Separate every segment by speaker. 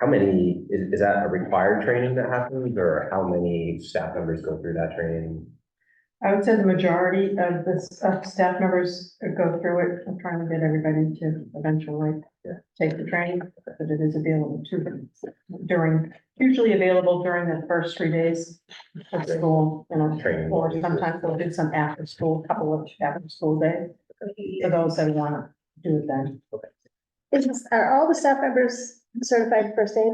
Speaker 1: How many, is, is that a required training that happens or how many staff members go through that training?
Speaker 2: I would say the majority of the s- of staff members go through it. I'm trying to get everybody to eventually
Speaker 1: Yeah.
Speaker 2: take the training, but it is available to them during, usually available during the first three days of school, you know,
Speaker 1: Training.
Speaker 2: or sometimes they'll do some after school, couple of after school days for those that want to do it then.
Speaker 3: Is, are uh, all the staff members certified in first aid?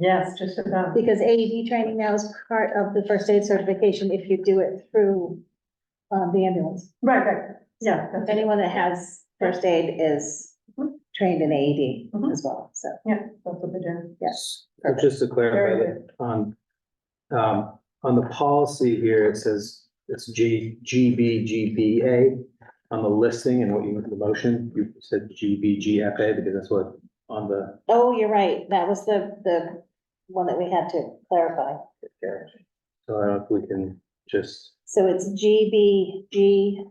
Speaker 2: Yes, just about.
Speaker 3: Because AED training now is part of the first aid certification if you do it through uh, the ambulance.
Speaker 2: Right, right. Yeah. that's it.
Speaker 3: Anyone that has first aid is trained in AED as well, so,
Speaker 2: Yeah, that's what they do.
Speaker 3: yes.
Speaker 4: So Just to
Speaker 2: Very
Speaker 4: clarify,
Speaker 2: good.
Speaker 4: that on, um, on the policy here, it says it's G, GBGBA. On the listing and what you, the motion, you said GBGFA because that's what on the,
Speaker 3: Oh, you're right, that was the, the one that we had to clarify.
Speaker 4: so I don't know if we can just
Speaker 3: So it's GBGBA.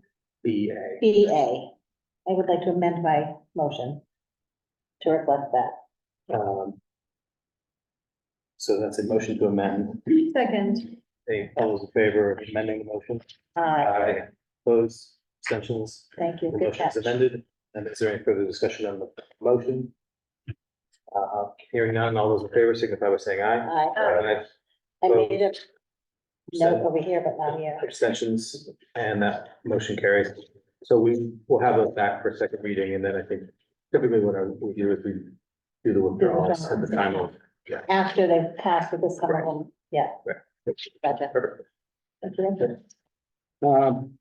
Speaker 4: BA.
Speaker 3: I would like to amend my motion to reflect that.
Speaker 4: um, So that's a motion to amend.
Speaker 3: Second.
Speaker 4: Any, all those in favor of amending the motion?
Speaker 3: Aye,
Speaker 4: Opposed, abstentions?
Speaker 3: thank you,
Speaker 4: The
Speaker 3: good catch.
Speaker 4: motion's amended, and is there any further discussion on the motion? Uh, hearing none, all those in favor signify by saying aye.
Speaker 3: Aye.
Speaker 4: Aye.
Speaker 3: I made a note over here, but not here.
Speaker 4: Abstentions, and that motion carries. So we will have those back for second reading, and then I think typically what I- we do is we do the withdrawals at the time of.
Speaker 3: After they've passed with this someone, yeah.
Speaker 4: Right.
Speaker 3: Gotcha.
Speaker 4: Perfect.
Speaker 3: Thank you.
Speaker 4: Um,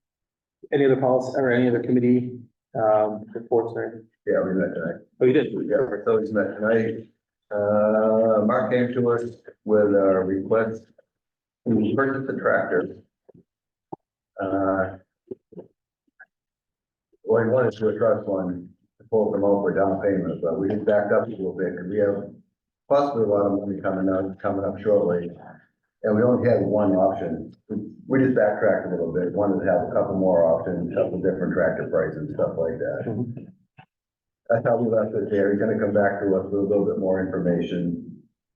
Speaker 4: any other policy or any other committee, um, reports or?
Speaker 5: Yeah, we met tonight.
Speaker 4: Oh, you did.
Speaker 5: Yeah, we're always met tonight. Uh, Mark came to us with a request to purchase a tractor. Uh. Well, he wanted to trust one to pull them over down payment, but we just backed up a little bit because we have possibly a lot of money coming up, coming up shortly. And we only had one option. We just backtracked a little bit, wanted to have a couple more options, a couple different tractor prices, stuff like that. That's how we left it there. He's gonna come back to us with a little bit more information,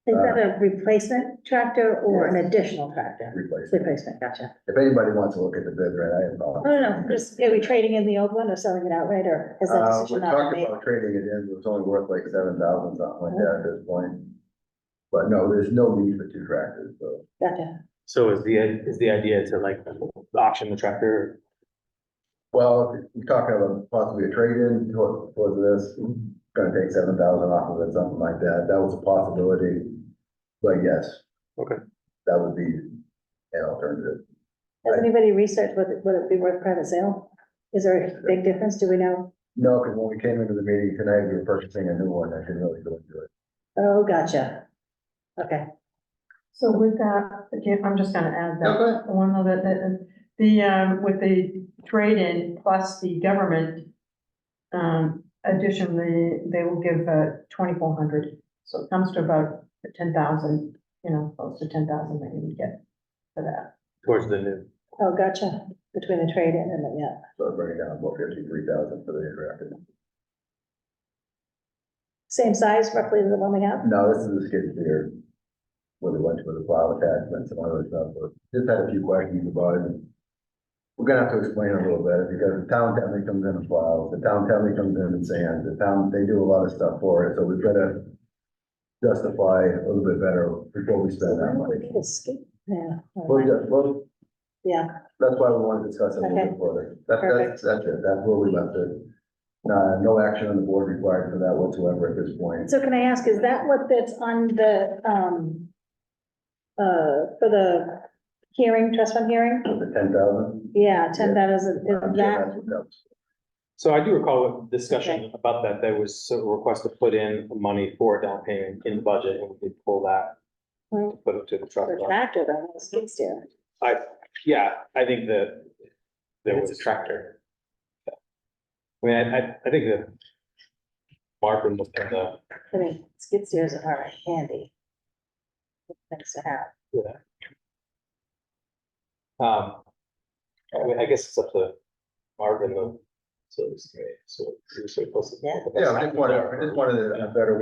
Speaker 3: Is that
Speaker 5: Uh,
Speaker 3: a replacement tractor or an additional tractor?
Speaker 5: replace it.
Speaker 3: Replacement, gotcha.
Speaker 5: If anybody wants to look at the bid, right, I have. all-
Speaker 3: No, no, no, just, are we trading in the old one or selling it outright, or has that
Speaker 5: Uh, we
Speaker 3: decision not
Speaker 5: talked
Speaker 3: been made?
Speaker 5: about trading it in, it was only worth like seven thousand, something like that at this point. But no, there's no need for two tractors, so.
Speaker 3: Gotcha.
Speaker 4: So is the, is the idea to like auction the tractor?
Speaker 5: Well, if you're talking about possibly a trade-in toward, toward this, gonna take seven thousand off of it, something like that. That was a possibility. But yes.
Speaker 4: Okay.
Speaker 5: That would be an alternative.
Speaker 3: Has anybody researched what, it- would it be worth private sale? Is there a big difference? Do we know?
Speaker 5: No, because when we came into the meeting tonight, we were purchasing a new one. I didn't really go into it.
Speaker 3: Oh, gotcha. Okay,
Speaker 2: So with that, again, I'm just gonna add
Speaker 5: No, go
Speaker 2: that, one other, that, the, um, with the trade-in plus the government. Um, additionally, they will give, uh, twenty-four hundred, so it comes to about ten thousand, you know, close to ten thousand that you would get for that.
Speaker 4: Towards the new.
Speaker 3: oh, gotcha, between the trade-in and the, yeah.
Speaker 5: So it bring it down about fifty-three thousand for the interactive.
Speaker 3: Same size roughly as the one we have?
Speaker 5: No, this is a skid steer. Where we went with the plow attachments and all those stuff, but just had a few questions about it. We're gonna have to explain a little bit, because the town definitely comes in and plows, the town definitely comes in and sands, the town, they do a lot of stuff for it, so we've gotta. Justify a little bit better before we spend that
Speaker 3: We
Speaker 5: money.
Speaker 3: need a skate- Yeah. never
Speaker 5: Well,
Speaker 3: mind.
Speaker 5: yeah, well,
Speaker 3: Yeah,
Speaker 5: that's why we want to discuss it a little
Speaker 3: Okay.
Speaker 5: bit further. That, that's, that's it, that's where we left it. Uh, no action on the board required for that whatsoever at this point.
Speaker 3: So can I ask, is that what that's on the, um, uh, for the hearing, trust fund hearing?
Speaker 5: With the ten thousand?
Speaker 3: Yeah, ten thousand, is that,
Speaker 4: So I do recall a discussion about that. There was a request to put in money for a down payment in the budget and we did pull that.
Speaker 3: Hmm.
Speaker 4: Put it to the truck.
Speaker 3: for tractor, though, not a skid steer?
Speaker 4: I, yeah, I think that. There was a tractor. I mean, I, I, I think that. Mark and uh, the,
Speaker 3: I mean, skid steers are handy. Things to have.
Speaker 4: um. I mean, I guess it's up to Mark and the. So it's, so it's.
Speaker 3: Yeah.
Speaker 5: Yeah, I just wanted, I just wanted a better way